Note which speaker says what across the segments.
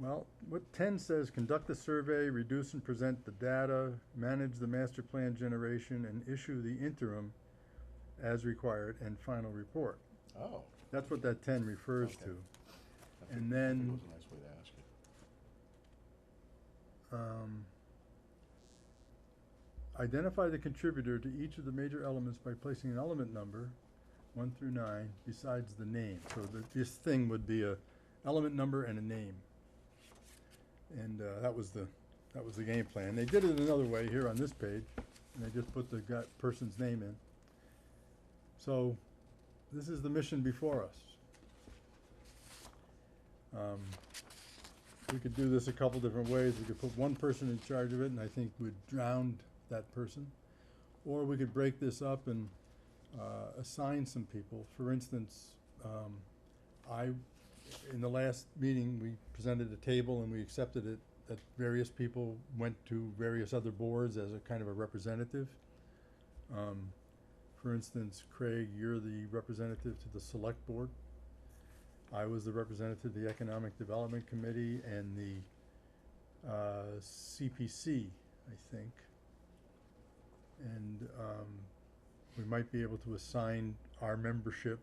Speaker 1: Well, what ten says, conduct the survey, reduce and present the data, manage the master plan generation, and issue the interim as required and final report.
Speaker 2: Oh.
Speaker 1: That's what that ten refers to.
Speaker 2: Okay. I think-
Speaker 1: And
Speaker 2: I think
Speaker 1: then-
Speaker 2: It was a nice way to ask it.
Speaker 1: Um, identify the contributor to each of the major elements by placing an element number, one through nine, besides the name. So that this thing would be a element number and a name. And, uh, that was the, that was the game plan. They did it another way here on this page, and they just put the guy, person's name in. So, this is the mission before us. Um, we could do this a couple different ways. We could put one person in charge of it, and I think we'd drown that person. Or we could break this up and uh, assign some people. For instance, um, I, in the last meeting, we presented a table and we accepted it that various people went to various other boards as a kind of a representative. Um, for instance, Craig, you're the representative to the select board. I was the representative of the Economic Development Committee and the uh, CPC, I think. And um, we might be able to assign our membership,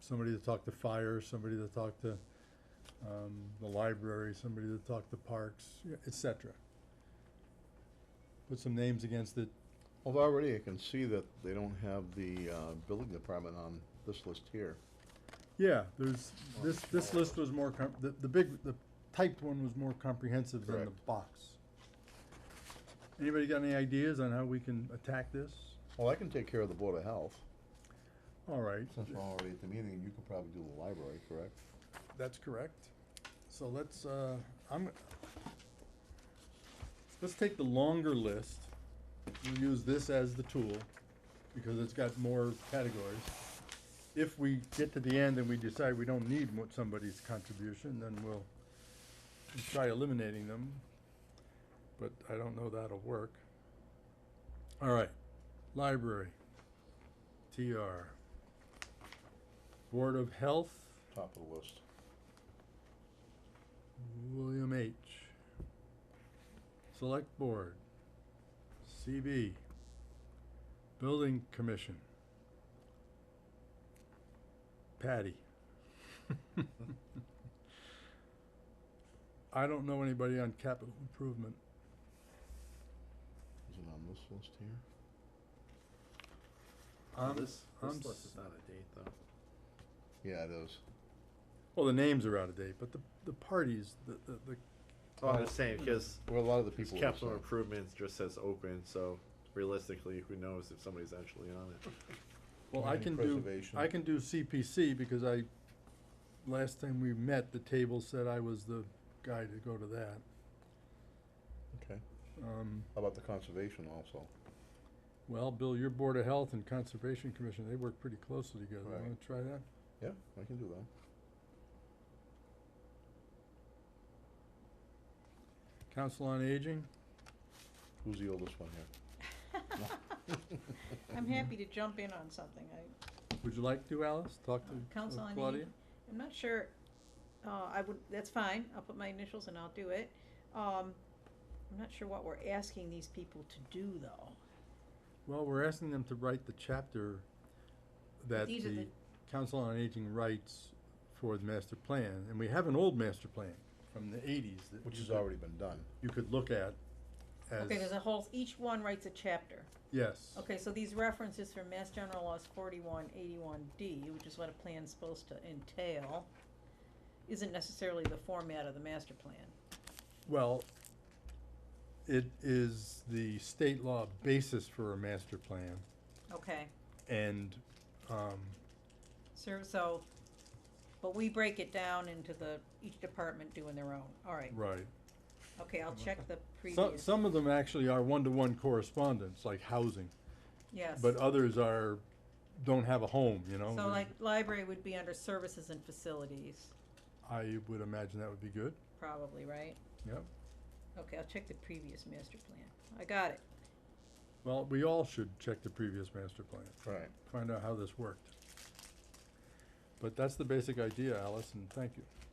Speaker 1: somebody to talk to fire, somebody to talk to um, the library, somebody to talk to parks, y- et cetera. Put some names against it.
Speaker 2: Although already I can see that they don't have the, uh, building department on this list here.
Speaker 1: Yeah, there's, this, this list was more com- the, the big, the typed one was more comprehensive than the
Speaker 2: Correct.
Speaker 1: box. Anybody got any ideas on how we can attack this?
Speaker 2: Well, I can take care of the Board of Health,
Speaker 1: All right,
Speaker 2: since we're already at the meeting, and you could probably do the library, correct?
Speaker 1: that's correct. So let's, uh, I'm, let's take the longer list. We'll use this as the tool because it's got more categories. If we get to the end and we decide we don't need what somebody's contribution, then we'll try eliminating them. But I don't know that'll work. All right, library, TR. Board of Health,
Speaker 2: Top of the list.
Speaker 1: William H. Select Board. CB. Building Commission. Patty. I don't know anybody on capital improvement.
Speaker 2: Is it on this list here?
Speaker 3: Well,
Speaker 1: I'm-
Speaker 3: This,
Speaker 1: I'm
Speaker 3: this list
Speaker 1: s-
Speaker 3: is not a date though.
Speaker 2: Yeah, it is.
Speaker 1: Well, the names are out of date, but the, the parties, the, the, the,
Speaker 3: Oh, I'm
Speaker 2: Well,
Speaker 3: just saying, because
Speaker 2: Well, a lot of the people. are the
Speaker 3: capital
Speaker 2: same.
Speaker 3: improvements just says open, so realistically, who knows if somebody's actually on it?
Speaker 1: well, I
Speaker 2: Community
Speaker 1: can do,
Speaker 2: preservation.
Speaker 1: I can do CPC because I, last time we met, the table said I was the guy to go to that.
Speaker 2: Okay.
Speaker 1: Um,
Speaker 2: How about the conservation also?
Speaker 1: Well, Bill, your Board of Health and Conservation Commission, they work pretty closely together.
Speaker 2: Right.
Speaker 1: Wanna try that?
Speaker 2: Yeah, I can do that.
Speaker 1: Council on Aging?
Speaker 2: Who's the oldest one here?
Speaker 4: I'm happy to jump in on something. I,
Speaker 1: Would you like to, Alice? Talk to uh,
Speaker 4: Council on
Speaker 1: Claudia?
Speaker 4: Aging. I'm not sure, uh, I would, that's fine, I'll put my initials and I'll do it. Um, I'm not sure what we're asking these people to do though.
Speaker 1: Well, we're asking them to write the chapter that
Speaker 4: These are
Speaker 1: the
Speaker 4: the-
Speaker 1: Council on Aging writes for the master plan. And we have an old master plan from the eighties that
Speaker 2: Which
Speaker 1: you
Speaker 2: has
Speaker 1: could-
Speaker 2: already been done.
Speaker 1: you could look at as,
Speaker 4: Okay, there's a whole, each one writes a chapter.
Speaker 1: yes.
Speaker 4: Okay, so these references from Mass General Laws forty-one eighty-one D, which is what a plan's supposed to entail, isn't necessarily the format of the master plan.
Speaker 1: Well, it is the state law basis for a master plan
Speaker 4: Okay,
Speaker 1: and, um,
Speaker 4: so, so, but we break it down into the, each department doing their own, all right.
Speaker 1: right.
Speaker 4: Okay, I'll check the
Speaker 1: Some,
Speaker 4: previous,
Speaker 1: some of them actually are one-to-one correspondence, like housing,
Speaker 4: yes.
Speaker 1: but uh, others are, don't have a home, you know?
Speaker 4: So like library would be under services and facilities,
Speaker 1: I would imagine that would be good,
Speaker 4: probably, right?
Speaker 1: yep.
Speaker 4: Okay, I'll check the previous master plan. I got it.
Speaker 1: Well, we all should check the previous master plan,
Speaker 2: Right.
Speaker 1: find out how this worked. But that's the basic idea, Alice, and thank you.